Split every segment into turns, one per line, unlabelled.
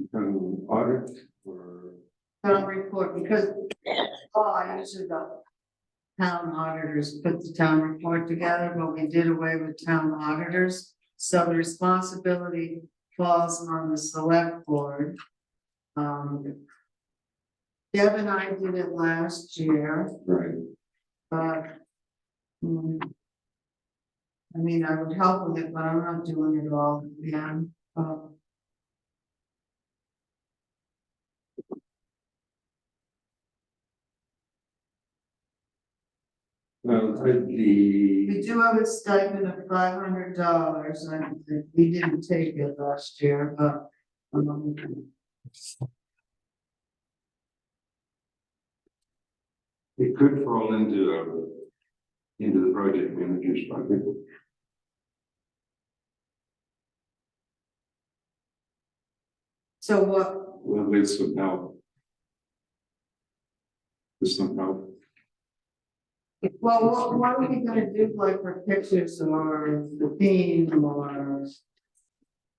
become Um, audit or?
town report, because law usually the town auditors put the town report together, but we did away with town auditors. So the responsibility falls on the select board. Um. Deb and I did it last year,
Right.
but. mm, I mean, I would help with it, but I'm not doing it all, yeah, um.
Well, I-
We
the,
do have a stipend of five hundred dollars, I think, we didn't take it last year, but. um,
it could fall into a, into the project manager's bucket.
So what,
Well, there's some help. There's some help.
well, what, what are we gonna do, like for pictures or the theme or?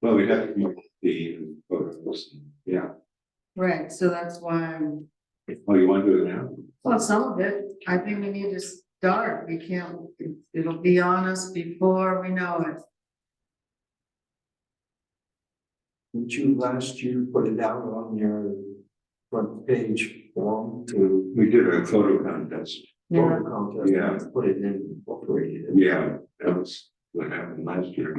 Well, we have to come up with the photos, yeah.
Right, so that's why, I'm-
Oh, you want to do it now?
well, some of it, I think we need to start, we can't, it- it'll be on us before we know it.
Did you last year put it out on your front page form to
We did a photo contest.
Yeah,
vote contest?
Yeah.
Put it in, incorporated it.
Yeah, that was what happened last year.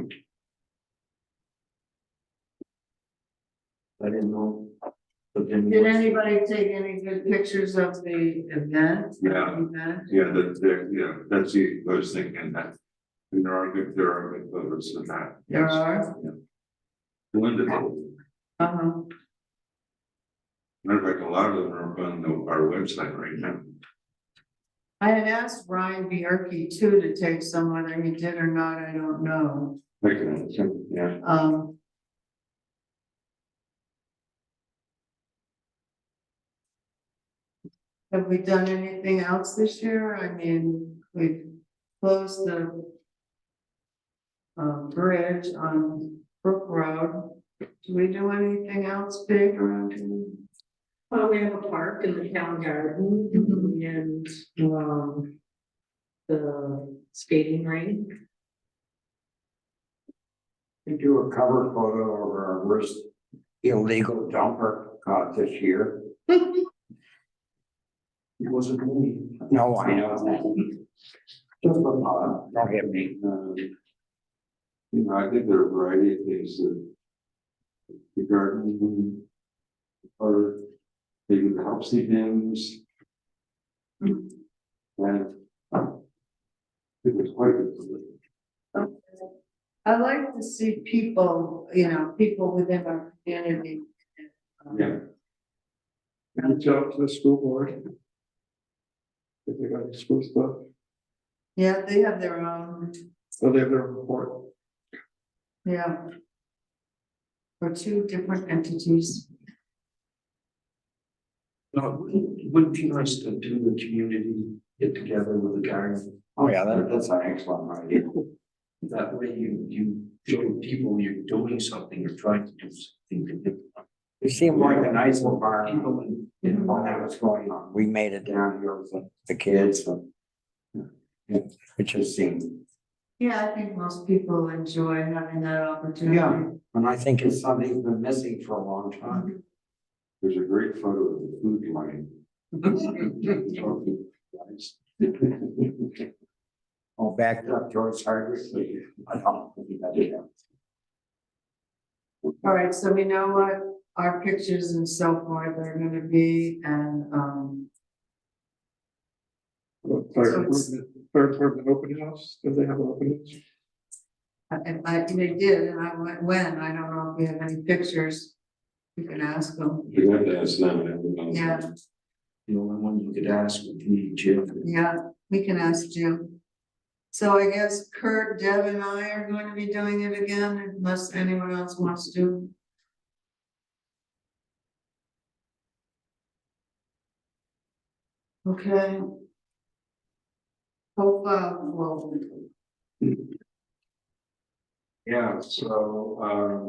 I didn't know. But then.
did
what's-
anybody take any good pictures of the event?
Yeah.
Event?
Yeah, that, there, yeah, that's the, I was thinking that. And there are good, there are good photos in that.
There
yes.
are,
Wonderful.
uh-huh.
Matter of fact, a lot of them are on the- our website right now.
I had asked Ryan Bierke too to take some, whether he did or not, I don't know,
Like, uh, yeah,
um. Have we done anything else this year? I mean, we've closed the. Um, bridge on Brook Road, do we do anything else big around here?
Well, we have a park in the town garden and, um, the skating rink.
We do a cover photo of our worst illegal dumper caught this year. It wasn't me. No, I know. Just a thought, don't hit me.
um, You know, I think there are a variety of things that. The garden. Or maybe the help dams. And. It was quite a.
I like to see people, you know, people within our community. um,
Yeah. Reach out to the school board. If they got any school stuff,
Yeah, they have their own,
so they have their report.
yeah. For two different entities.
No, wouldn't, wouldn't be nice to do the community get together with the garden.
Oh, yeah, that-
that's an excellent idea. That way you, you show people you're doing something, you're trying to do something.
It seemed like a nice
People
environment.
in- in what was going on.
We made it down,
Down here with the-
the
kids
kids,
and. Yeah, it just seemed,
Yeah, I think most people enjoy having that opportunity.
Yeah. and I think it's something's been missing for a long time.
There's a great photo of the food line. Talking, guys.
all back
Back up George Hardwick. I don't think that did happen.
All right, so we know what our pictures and so forth are gonna be and, um,
Fire department, fire department open house, do they have an open house?
and I, they did, and I went, when, I don't know if we have any pictures. You can ask them,
You have to ask them. I don't know.
Yeah.
The only one you could ask would be Jim.
yeah, we can ask Jim. So I guess Kurt, Deb and I are going to be doing it again unless anyone else wants to. Okay. Hope, uh, well,
Yeah, so, um.